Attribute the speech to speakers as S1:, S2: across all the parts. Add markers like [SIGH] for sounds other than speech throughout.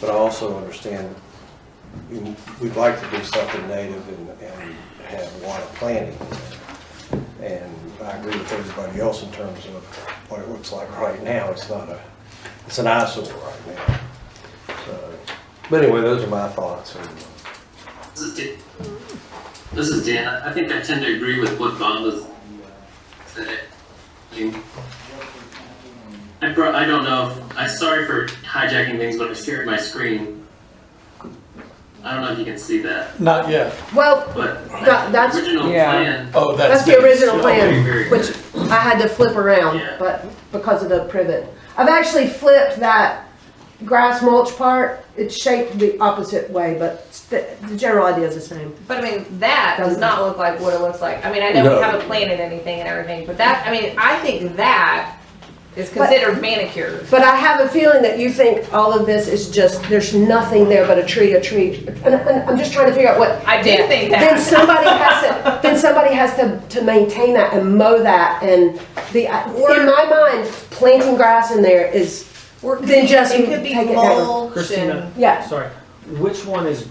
S1: But I also understand, we- we'd like to do something native and, and have water planting. And I agree with everybody else in terms of what it looks like right now, it's not a, it's an eyesore right now. So, But anyway, those are my thoughts, and
S2: This is Dan. This is Dan. I I think I tend to agree with what Bob was saying. I mean, I pro- I don't know if, I'm sorry for hijacking things, but I shared my screen. I don't know if you can see that,
S3: Not yet.
S4: Well,
S2: but
S4: That-
S2: the
S4: that's-
S2: original
S5: Yeah.
S2: plan,
S3: Oh, that's.
S4: that's the original
S2: Okay,
S4: plan,
S2: very good.
S4: which I had to flip around,
S2: Yeah.
S4: but because of the privet. I've actually flipped that grass mulch part, it's shaped the opposite way, but the, the general idea is the same.
S6: But I mean, that does not look like what it looks like. I mean, I know
S1: No.
S6: we haven't planted anything and everything, but that, I mean, I think that is considered manicured.
S4: But I have a feeling that you think all of this is just, there's nothing there but a tree, a tree. And, and I'm just trying to figure out what.
S6: I do think
S4: Then
S6: that.
S4: somebody has to, then somebody has to, to maintain that and mow that and the, in my mind, planting grass in there is,
S6: Or it could
S4: Then
S6: be-
S4: just
S6: It could be
S4: take it down.
S6: mulch
S7: Christina.
S6: and,
S4: yeah.
S7: Sorry, which one is,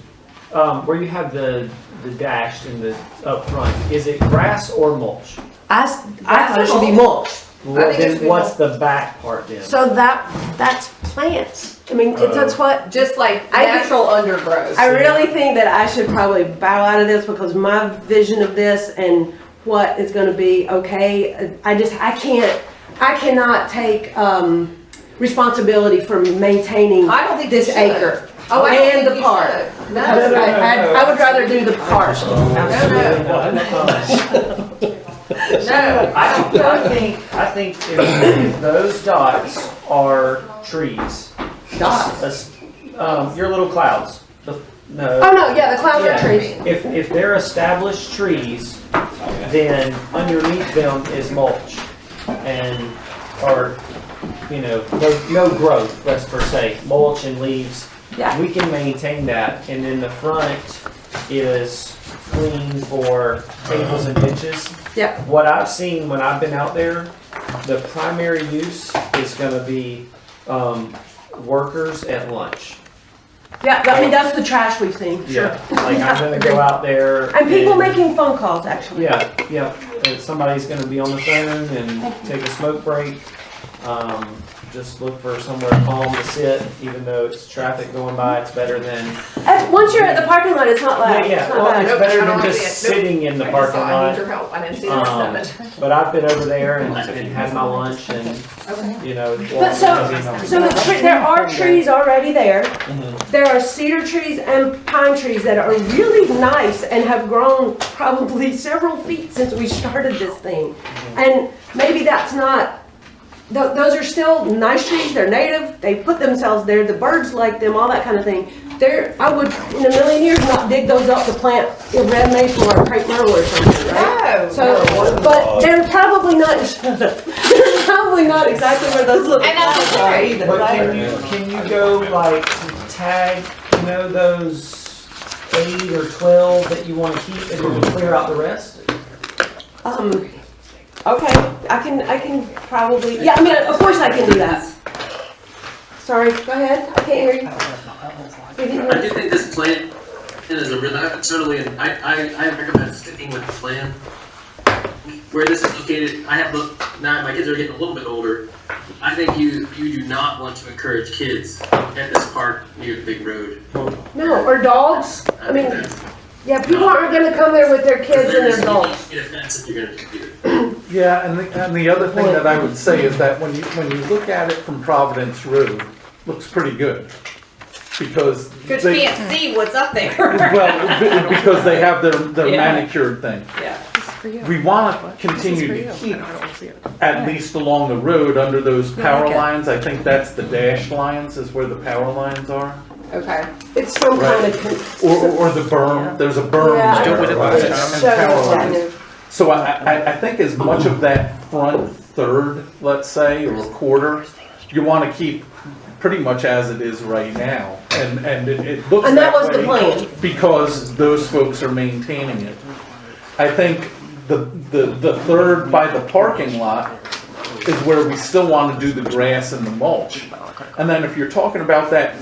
S7: um, where you have the, the dashed in the, up front, is it grass or mulch?
S4: I, s- I thought it should be mulch.
S7: Well,
S6: it should
S7: Then
S6: be
S7: what's the back part then?
S4: So that, that's plants. I mean, it-
S7: Oh,
S4: that's what,
S6: just like
S4: I think-
S6: natural undergrowth.
S4: I really think that I should probably bow out of this because my vision of this and what is gonna be okay, I just, I can't, I cannot take, um, responsibility for maintaining
S6: I don't think you
S4: this
S6: should.
S4: acre.
S6: Oh, I don't
S4: and
S6: think
S4: the
S6: you
S4: park.
S6: should.
S4: I,
S6: No.
S4: I, I would rather do the park.
S7: Absolutely not.
S6: No, I don't,
S7: I think, I think if- if those dots are trees,
S4: Dots.
S7: that's, um, your little clouds, the, no.
S4: Oh, no, yeah, the clouds are
S7: Yeah.
S4: trees.
S7: If, if they're established trees, then underneath them is mulch and, or, you know, no, no growth, let's per se, mulch and leaves.
S4: Yeah.
S7: We can maintain that, and then the front is clean for tables and benches.
S4: Yep.
S7: What I've seen when I've been out there, the primary use is gonna be, um, workers at lunch.
S4: Yeah, I mean, that's the trash we've seen.
S7: Yeah. Like, I'm
S4: [LAUGHS]
S7: gonna go out there.
S4: And people making phone calls, actually.
S7: Yeah, yeah, and somebody's gonna be on the phone and take a smoke break. Um, just look for somewhere calm to sit, even though it's traffic going by, it's better than,
S4: And once you're at the parking lot, it's not
S7: yeah,
S4: like, it's
S7: yeah,
S4: not
S7: well,
S4: bad.
S7: it's
S6: Nope, I
S7: better
S6: don't
S7: than
S6: wanna
S7: just
S6: see it. Nope.
S7: sitting in the
S6: I just saw,
S7: parking
S6: I need
S7: lot.
S6: your help. I didn't see
S7: Um,
S6: this seven.
S7: But I've been over there and, and had my lunch and,
S6: Okay.
S7: you know.
S4: But so- So the tre there are trees already there.
S7: Mhm.
S4: There are cedar trees and pine trees that are really nice and have grown probably several feet since we started this thing. And maybe that's not, tho- those are still nice trees, they're native, they put themselves there, the birds like them, all that kind of thing. There, I would, in a million years, not dig those up to plant a red maple or a crepe myrtle or something, right?
S6: No.
S4: So, but they're probably not, [LAUGHS] they're probably not exactly where those little
S6: And that's
S4: flowers are
S6: okay.
S4: either,
S7: But
S4: right?
S7: can you, can you go like tag, you know, those eight or twelve that you wanna keep and then clear out the rest?
S4: Um, okay, I can, I can probably, yeah, I mean, of course I can do that. Sorry, go ahead, I can't hear you. We
S2: I
S4: didn't hear
S2: do
S4: you.
S2: think this plan is a really, I totally, I, I, I recommend sticking with the plan. Where this is located, I have, look- now my kids are getting a little bit older. I think you, you do not want to encourage kids at this park near the big road.
S4: No, or dogs, I
S2: think
S4: mean,
S2: that's-
S4: yeah, people aren't gonna come there with their kids and their dogs.
S2: Get offensive, you're gonna do it.
S3: Yeah, and the, and the other thing that I would say is that when you, when you look at it from Providence Road, looks pretty good. Because
S6: Cause you
S3: they,
S6: can't see what's up
S7: [LAUGHS]
S6: there.
S4: [LAUGHS]
S3: well, be- because they have their, their
S6: Yeah.
S3: manicured thing.
S6: Yeah.
S3: We wanna continue to keep at least along the road under those power lines. I think that's the dashed lines is where the power lines are.
S6: Okay.
S4: It's some kind of.
S3: Or, or the berm, there's a berm
S4: Yeah.
S3: there,
S8: Still with it
S3: right?
S8: last time.
S3: And
S4: So,
S3: power
S4: yeah,
S3: lines. So I, I, I think as much of that front third, let's say, or quarter, you wanna keep pretty much as it is right now. And, and it, it looks
S4: And that
S3: that
S4: was the
S3: way
S4: plan.
S3: Because those folks are maintaining it. I think the, the, the third by the parking lot is where we still wanna do the grass and the mulch. And then if you're talking about that